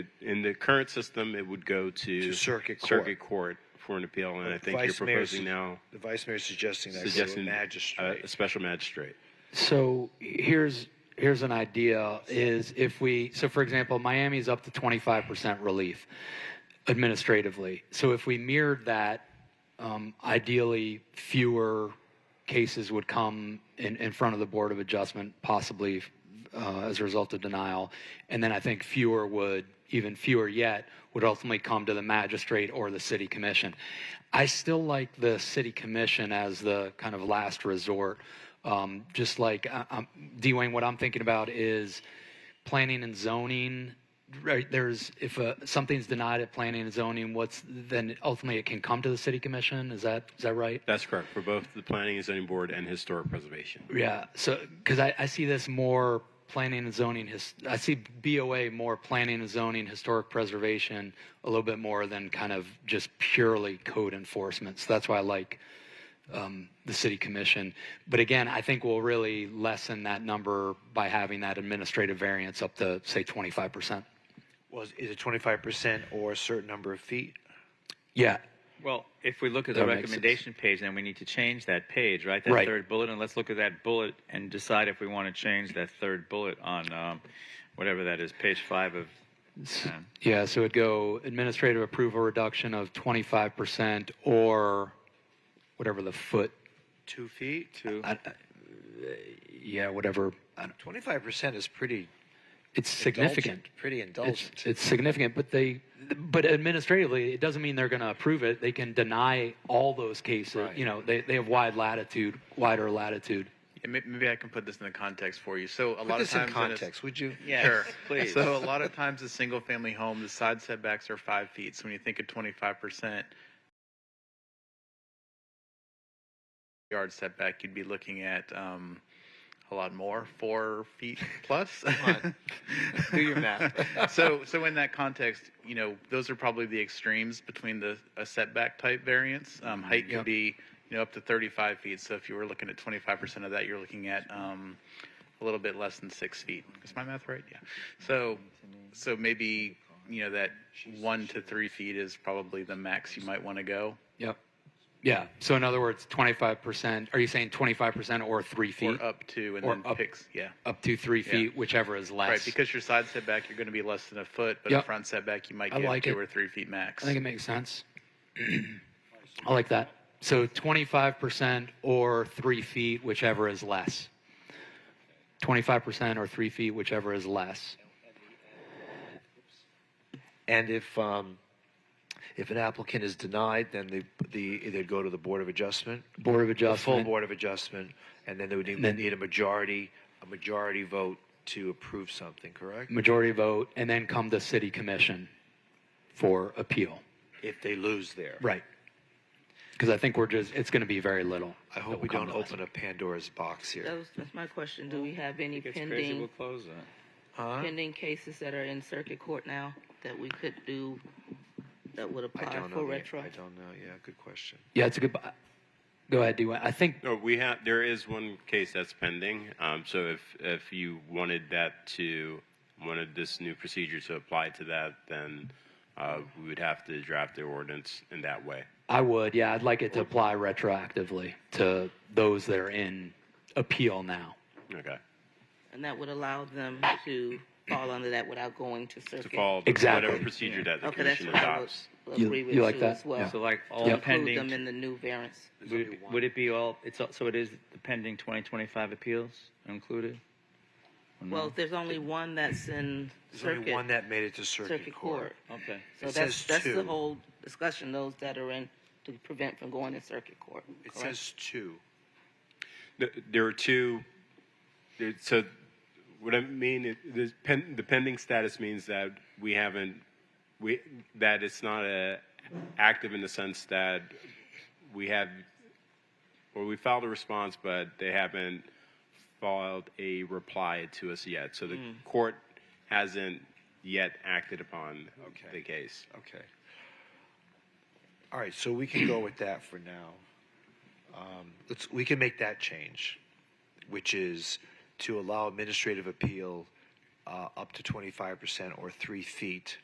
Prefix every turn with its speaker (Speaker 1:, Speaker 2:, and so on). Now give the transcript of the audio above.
Speaker 1: in the current system, it would go to,
Speaker 2: To circuit court.
Speaker 1: circuit court for an appeal, and I think
Speaker 2: Vice
Speaker 1: you're
Speaker 2: mayor's-
Speaker 1: proposing now
Speaker 2: The vice mayor's suggesting that go to a
Speaker 1: suggesting uh,
Speaker 2: magistrate.
Speaker 1: a special magistrate.
Speaker 3: So here's here's an idea is if we so for example Miami's up to 25% relief administratively. So if we mirrored that um, ideally fewer cases would come in, in front of the board of adjustment possibly uh, as a result of denial and then I think fewer would even fewer yet would ultimately come to the magistrate or the city commission. I still like the city commission as the kind of last resort. Um, just like I, I'm, Dwayne, what I'm thinking about is planning and zoning. Right there's if uh, something's denied at planning and zoning, what's then ultimately it can come to the city commission. Is that is that right?
Speaker 1: That's correct for both the planning and zoning board and historic preservation.
Speaker 3: Yeah. So, because I, I see this more planning and zoning. His, I see BOA more planning and zoning, historic preservation, a little bit more than kind of just purely code enforcement. So that's why I like um, the city commission. But again, I think we'll really lessen that number by having that administrative variance up to say 25%.
Speaker 2: Was, is it twenty-five percent or a certain number of feet?
Speaker 3: Yeah.
Speaker 4: Well, if we look at the
Speaker 3: That makes sense.
Speaker 4: recommendation page, then we need to change that page, right? That
Speaker 3: Right.
Speaker 4: third bullet, and let's look at that bullet and decide if we want to change that third bullet on um, whatever that is, page five of. um,
Speaker 3: Yeah. So it'd go administrative approval reduction of 25% or whatever the foot
Speaker 2: Two feet?
Speaker 4: Two.
Speaker 3: I, I, yeah, whatever. I don't-
Speaker 2: Twenty-five percent is pretty
Speaker 3: It's significant.
Speaker 2: indulgent, Pretty
Speaker 3: It's,
Speaker 2: indulgent.
Speaker 3: it's significant, but they, but administratively, it doesn't mean they're going to approve it. They can deny all those cases.
Speaker 2: Right.
Speaker 3: You know, they, they have wide latitude, wider latitude.
Speaker 5: Yeah, may- Maybe I can put this in the context for you. So a
Speaker 2: Put
Speaker 5: lot
Speaker 2: this
Speaker 5: of times
Speaker 2: in
Speaker 5: a-
Speaker 2: context, would you?
Speaker 4: Yes,
Speaker 5: sure.
Speaker 4: please.
Speaker 5: So a lot of times, a single-family home, the side setbacks are five feet. So when you think of twenty-five percent yard setback, you'd be looking at um, a lot more, four feet plus.
Speaker 2: Come Do your math.
Speaker 5: so, so in that context, you know, those are probably the extremes between the a setback type variance.
Speaker 3: Mm-hmm.
Speaker 5: Um, height can
Speaker 3: Yep.
Speaker 5: be, you know, up to 35 feet. So if you were looking at 25% of that, you're looking at um, a little bit less than six feet. Is my math right? Yeah. So, so maybe you know that one to three feet is probably the max you might want to go.
Speaker 3: Yep. Yeah. So in other words, 25%, are you saying 25% or three feet?
Speaker 5: Or up to, and
Speaker 3: Or
Speaker 5: then
Speaker 3: up-
Speaker 5: picks, yeah.
Speaker 3: Up to three
Speaker 5: Yeah.
Speaker 3: feet, whichever is less.
Speaker 5: Right, because your side setback, you're going to be less than a foot, but a
Speaker 3: Yep.
Speaker 5: front setback, you might
Speaker 3: I
Speaker 5: get
Speaker 3: like
Speaker 5: two
Speaker 3: it.
Speaker 5: or three feet max.
Speaker 3: I think it makes sense. I like that. So 25% or three feet, whichever is less. 25% or three feet, whichever is less.
Speaker 2: And if, um, if an applicant is denied, then the, the, they'd go to the Board of Adjustment,
Speaker 3: Board of
Speaker 2: the full
Speaker 3: Adjustment.
Speaker 2: Board of Adjustment, and then they would need,
Speaker 3: Then-
Speaker 2: need a majority, a majority vote to approve something, correct?
Speaker 3: Majority vote, and then come to City Commission for appeal.
Speaker 2: If they lose there.
Speaker 3: Right. Because I think we're just, it's going to be very little.
Speaker 2: I hope we don't open a Pandora's box
Speaker 6: That
Speaker 2: here.
Speaker 6: was, that's my question. Do we have any
Speaker 4: If it gets crazy, we'll
Speaker 6: pending,
Speaker 4: close that.
Speaker 2: Huh?
Speaker 6: pending cases that are in circuit court now that we could do, that would
Speaker 2: I
Speaker 6: apply
Speaker 2: don't
Speaker 6: for
Speaker 2: know. the-
Speaker 6: uh, retro?
Speaker 2: I don't know. Yeah, good question.
Speaker 3: Yeah, it's a good, go ahead, do I think,
Speaker 1: No, we have. There is one case that's pending. Um, so if if you wanted that to wanted this new procedure to apply to that, then uh, we would have to draft the ordinance in that way.
Speaker 3: I would, yeah, I'd like it to apply retroactively to those that are in appeal now.
Speaker 1: Okay.
Speaker 6: And that would allow them to fall under that without going to
Speaker 1: To
Speaker 6: circuit?
Speaker 1: follow
Speaker 3: Exactly.
Speaker 1: whatever procedure that the
Speaker 6: Okay, that's
Speaker 1: commission
Speaker 6: what I
Speaker 1: adopts.
Speaker 6: would
Speaker 3: You-
Speaker 6: agree with
Speaker 3: you like
Speaker 6: you
Speaker 3: that?
Speaker 6: as well.
Speaker 3: Yeah.
Speaker 4: So like all
Speaker 6: To Include them
Speaker 4: pending,
Speaker 6: in the new variance.
Speaker 4: would it, would it be all, it's, all- so it is the pending 2025 appeals included? Or no?
Speaker 6: Well, if there's only one that's in
Speaker 2: Mm-hmm. There's only one
Speaker 6: circuit,
Speaker 2: that made it to
Speaker 6: circuit court.
Speaker 4: Okay.
Speaker 6: So
Speaker 2: It
Speaker 6: that's,
Speaker 2: says
Speaker 6: that's the
Speaker 2: two.
Speaker 6: whole discussion, those that are in, to prevent from going to circuit court.
Speaker 2: It
Speaker 6: correct?
Speaker 2: says two.
Speaker 1: Th- There are two. there- So, what I mean, it- the pen- the pending status means that we haven't, we that it's not a active in the sense that we have, or we filed a response, but they haven't filed a reply to us yet. So the court hasn't yet acted upon
Speaker 2: Okay.
Speaker 1: the case.
Speaker 2: Okay. All right, so we can go with that for now. Um, let's, we can make that change, which is to allow administrative appeal uh, up to 25% or three feet